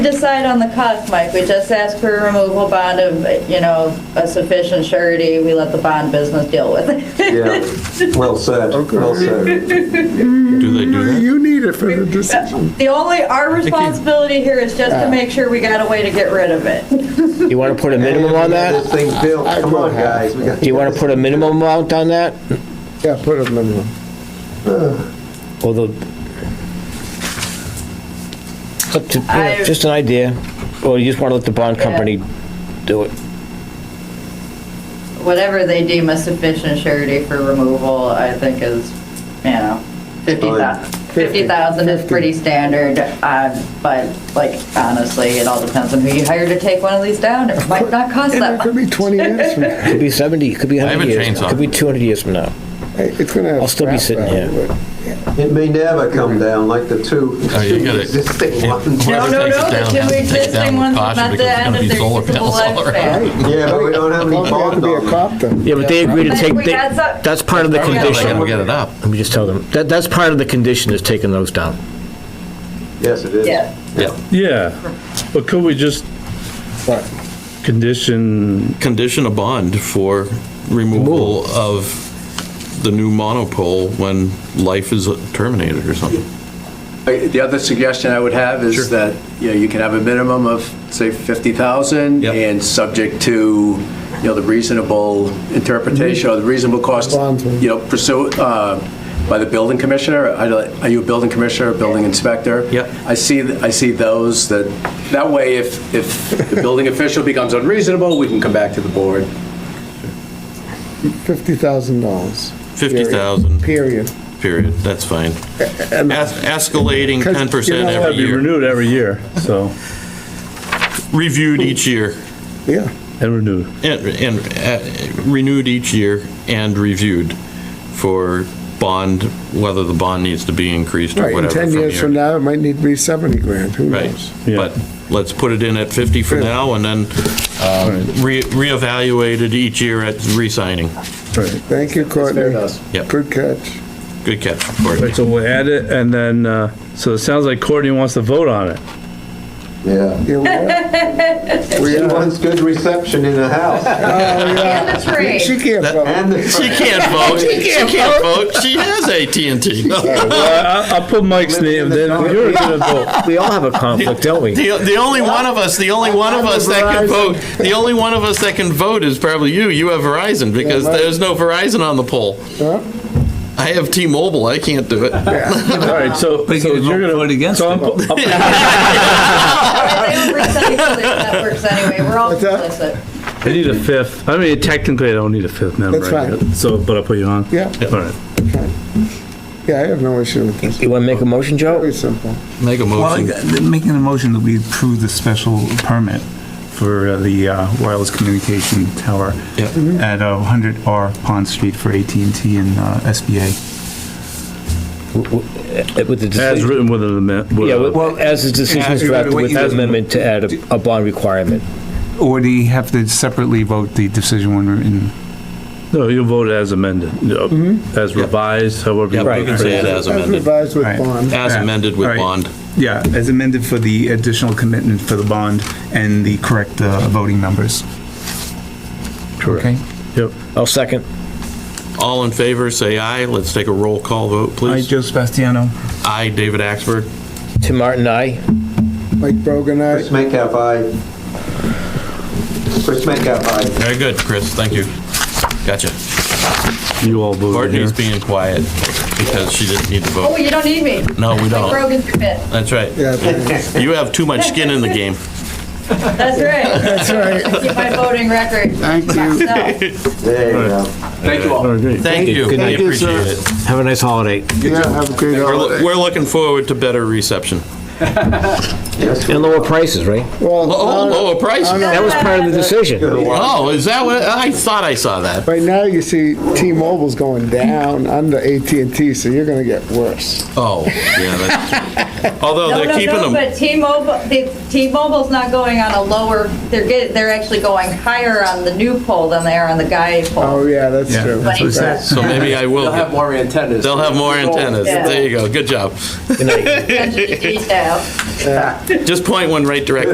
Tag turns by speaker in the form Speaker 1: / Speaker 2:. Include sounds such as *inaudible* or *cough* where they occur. Speaker 1: Decide on the cost, Mike. We just ask for a removal bond of, you know, a sufficient surety. We let the bond business deal with it. *laughs*
Speaker 2: Yeah, well said, well said.
Speaker 3: Do they do that?
Speaker 4: You need it for the decision.
Speaker 1: The only, our responsibility here is just to make sure we got a way to get rid of it.
Speaker 5: You want to put a minimum on
Speaker 2: This
Speaker 5: that?
Speaker 2: thing built,
Speaker 4: I
Speaker 2: come
Speaker 4: will
Speaker 2: on,
Speaker 4: have-
Speaker 2: guys. we got-
Speaker 5: Do you want to put a minimum amount on that?
Speaker 4: Yeah, put a minimum.
Speaker 5: Or the? It's up to- you know,
Speaker 1: I-
Speaker 5: Just an idea, or you just want to let the bond
Speaker 1: Yeah.
Speaker 5: company do it?
Speaker 1: Whatever they deem a sufficient surety for removal, I think is, you know, fifty thousand. Fifty thousand is pretty standard, uh, but like honestly, it all depends on who you hire to take one of these down. It might not cost
Speaker 4: And
Speaker 1: that
Speaker 4: it could
Speaker 1: much.
Speaker 4: be 20 years from now.
Speaker 5: Could be 70, could be
Speaker 3: I have
Speaker 5: 100
Speaker 3: a
Speaker 5: years,
Speaker 3: chainsaw.
Speaker 5: could be 200 years from now.
Speaker 4: Hey, It's gonna have.
Speaker 5: I'll still be
Speaker 4: scrap
Speaker 5: sitting
Speaker 4: value,
Speaker 5: here.
Speaker 4: but
Speaker 2: It may never come down like the two
Speaker 3: Oh, you
Speaker 2: *laughs*
Speaker 3: gotta-
Speaker 2: existing
Speaker 3: *laughs* yeah.
Speaker 2: ones.
Speaker 1: No,
Speaker 3: Whoever
Speaker 1: no,
Speaker 3: takes
Speaker 1: no,
Speaker 3: it
Speaker 1: the
Speaker 3: down
Speaker 1: two
Speaker 3: has to take it
Speaker 1: existing
Speaker 3: down with
Speaker 1: ones is
Speaker 3: caution
Speaker 1: not
Speaker 3: because
Speaker 1: the
Speaker 3: it's
Speaker 1: end
Speaker 3: gonna
Speaker 1: of
Speaker 3: be
Speaker 1: their
Speaker 3: solar
Speaker 1: usable
Speaker 3: panels all
Speaker 1: lifespan.
Speaker 3: around.
Speaker 2: Yeah, but we don't have any
Speaker 4: Don't have to
Speaker 2: bond
Speaker 4: be a
Speaker 2: on
Speaker 4: cop then.
Speaker 5: Yeah, but they agree to
Speaker 1: But
Speaker 5: take,
Speaker 1: we
Speaker 5: they-
Speaker 1: got some-
Speaker 5: that's part of the
Speaker 1: Yeah, we got
Speaker 3: They gotta
Speaker 5: condition.
Speaker 3: get it up.
Speaker 5: Let me just tell them, that, that's part of the condition is taking those down.
Speaker 2: it. Yes, it is.
Speaker 1: Yeah.
Speaker 3: Yeah.
Speaker 6: Yeah, but could we just
Speaker 4: But
Speaker 6: condition,
Speaker 3: Condition a bond for removal of the new monopole when life is terminated or something.
Speaker 7: I- The other suggestion I would have
Speaker 3: Sure.
Speaker 7: is that, you know, you can have a minimum of, say, 50,000
Speaker 3: Yep.
Speaker 7: and subject to, you know, the reasonable interpretation or the reasonable cost,
Speaker 4: Bonds,
Speaker 7: you know, pursue, uh, by the building commissioner. I don't- Are you a building commissioner, a building inspector?
Speaker 3: Yep.
Speaker 7: I see, th- I see those that, that way if, if the building official becomes unreasonable, we can come back to the board.
Speaker 4: $50,000.
Speaker 3: 50,000,
Speaker 4: Period.
Speaker 3: period, that's fine. Es- Escalating
Speaker 4: 'Cause, you
Speaker 3: 10%
Speaker 4: know,
Speaker 6: gotta
Speaker 3: every
Speaker 6: be
Speaker 3: year,
Speaker 6: renewed every year, so,
Speaker 3: reviewed each year,
Speaker 4: Yeah.
Speaker 6: and renewed.
Speaker 3: and, and uh, renewed each year and reviewed for bond, whether the bond needs to be increased or
Speaker 4: Right, in
Speaker 3: whatever.
Speaker 4: 10
Speaker 3: from
Speaker 4: years
Speaker 3: year
Speaker 4: from
Speaker 3: to
Speaker 4: now, it might need to be 70 grand, who
Speaker 3: Right,
Speaker 4: knows?
Speaker 6: Yeah.
Speaker 3: but let's put it in at 50 for
Speaker 4: Yeah.
Speaker 3: now, and then um, re- reevaluate it each year at re-signing.
Speaker 6: Right,
Speaker 4: Thank you, Courtney.
Speaker 7: Fair enough.
Speaker 3: Yep.
Speaker 4: Good catch.
Speaker 3: Good catch, Courtney.
Speaker 6: Right, so we'll add it, and then, uh, so it sounds like Courtney wants to vote on it.
Speaker 2: Yeah.
Speaker 4: Here we are.
Speaker 2: She wants good reception in the
Speaker 4: *laughs*
Speaker 2: house.
Speaker 1: And the tree.
Speaker 4: She can't vote.
Speaker 2: And the-
Speaker 3: She can't vote, she can't vote, she has AT&T.
Speaker 6: I- I'll put Mike's name, then you're gonna vote.
Speaker 5: We all have a conflict, don't we?
Speaker 3: The, the only one of us, the only one of us that can vote, the only one of us that can vote is probably you, you have Verizon, because
Speaker 4: right.
Speaker 3: there's no Verizon on the poll.
Speaker 4: Huh?
Speaker 3: I have T-Mobile, I can't do it.
Speaker 6: *laughs* All right, so, so you're gonna. Vote against
Speaker 1: They don't recycle their networks anyway. We're all
Speaker 4: What's that?
Speaker 1: complicit.
Speaker 6: I *laughs* need a fifth, I mean, technically, I don't need a fifth member.
Speaker 4: That's
Speaker 6: I
Speaker 4: fine.
Speaker 6: guess. So, but I'll put you on.
Speaker 4: Yeah.
Speaker 6: All right.
Speaker 4: Yeah, I have no issue with this.
Speaker 5: You want to make a motion, Joe?
Speaker 4: Very simple.
Speaker 3: Make a
Speaker 8: Well,
Speaker 3: motion.
Speaker 8: they're making a motion that we approve the special permit for uh, the uh, wireless communication tower
Speaker 3: Yeah.
Speaker 8: at uh, 100 R Pond Street for at and t and uh, SBA.
Speaker 5: With the
Speaker 6: As
Speaker 5: decision,
Speaker 6: written with an amendment.
Speaker 5: yeah,
Speaker 8: Well,
Speaker 5: with- as the decision is
Speaker 8: as-
Speaker 5: drafted with the
Speaker 8: as-
Speaker 5: amendment to add a- a bond requirement.
Speaker 8: Or do you have to separately vote the decision when we're in?
Speaker 6: No, you vote as amended, no, as revised, however.
Speaker 3: Yeah,
Speaker 6: you
Speaker 3: we can say it
Speaker 4: As
Speaker 3: as amended,
Speaker 4: revised with
Speaker 8: Right.
Speaker 4: bond.
Speaker 3: as amended with
Speaker 8: All right.
Speaker 3: bond.
Speaker 8: Yeah, as amended for the additional commitment for the bond and the correct uh, voting numbers.
Speaker 6: Correct. Yep.
Speaker 5: I'll second.
Speaker 3: All in favor, say aye. Let's take a roll call vote,
Speaker 8: Aye,
Speaker 3: please.
Speaker 8: Joe Sebastiano.
Speaker 3: Aye, David Axberg.
Speaker 5: Tim Martin, aye.
Speaker 4: Mike Brogan, aye.
Speaker 2: Chris Metcalf, aye. Chris Metcalf, aye.
Speaker 3: Very good, Chris, thank you. Gotcha.
Speaker 6: You all voted here.
Speaker 3: Courtney's being quiet because she didn't need to
Speaker 1: Oh,
Speaker 3: vote.
Speaker 1: you don't need me.
Speaker 3: No, we
Speaker 1: Mike
Speaker 3: don't.
Speaker 1: Brogan's your bit.
Speaker 3: That's right.
Speaker 4: Yeah,
Speaker 7: *laughs*
Speaker 4: thanks.
Speaker 3: You have too much skin in the game.
Speaker 1: That's right. That's right. I keep my voting record.
Speaker 4: Thank you.
Speaker 1: myself.
Speaker 2: There you go.
Speaker 7: Thank you all.
Speaker 6: All right, great.
Speaker 3: Thank you,
Speaker 5: Good
Speaker 3: I
Speaker 5: night.
Speaker 3: appreciate it.
Speaker 5: Have a nice holiday.
Speaker 4: Yeah, have a great
Speaker 3: We're
Speaker 4: holiday.
Speaker 3: loo- we're looking forward to better reception.
Speaker 2: Yes,
Speaker 5: And
Speaker 2: we-
Speaker 5: lower prices, right?
Speaker 4: Well,
Speaker 3: Oh,
Speaker 4: no, no,
Speaker 3: lower prices?
Speaker 5: That was part of
Speaker 1: uh,
Speaker 5: the decision.
Speaker 2: good one.
Speaker 3: Oh, is that what, I thought I saw that.
Speaker 4: Right now, you see T-Mobile's going down under at and t so you're gonna get worse.
Speaker 3: Oh, yeah, that's true. Although
Speaker 1: No,
Speaker 3: they're
Speaker 1: no,
Speaker 3: keeping
Speaker 1: no,
Speaker 3: them,
Speaker 1: but T-Mobile, the- T-Mobile's not going on a lower, they're get, they're actually going higher on the new pole than they are on the guy
Speaker 4: Oh,
Speaker 1: pole.
Speaker 4: yeah, that's
Speaker 8: Yeah,
Speaker 4: true.
Speaker 8: that's
Speaker 1: what it says.
Speaker 3: so maybe I will.
Speaker 7: They'll have more antennas.
Speaker 3: They'll have more antennas.
Speaker 1: Yeah.
Speaker 3: There you go, good job. *laughs*
Speaker 5: Good night.
Speaker 1: Attention to detail.
Speaker 3: Just point one right directly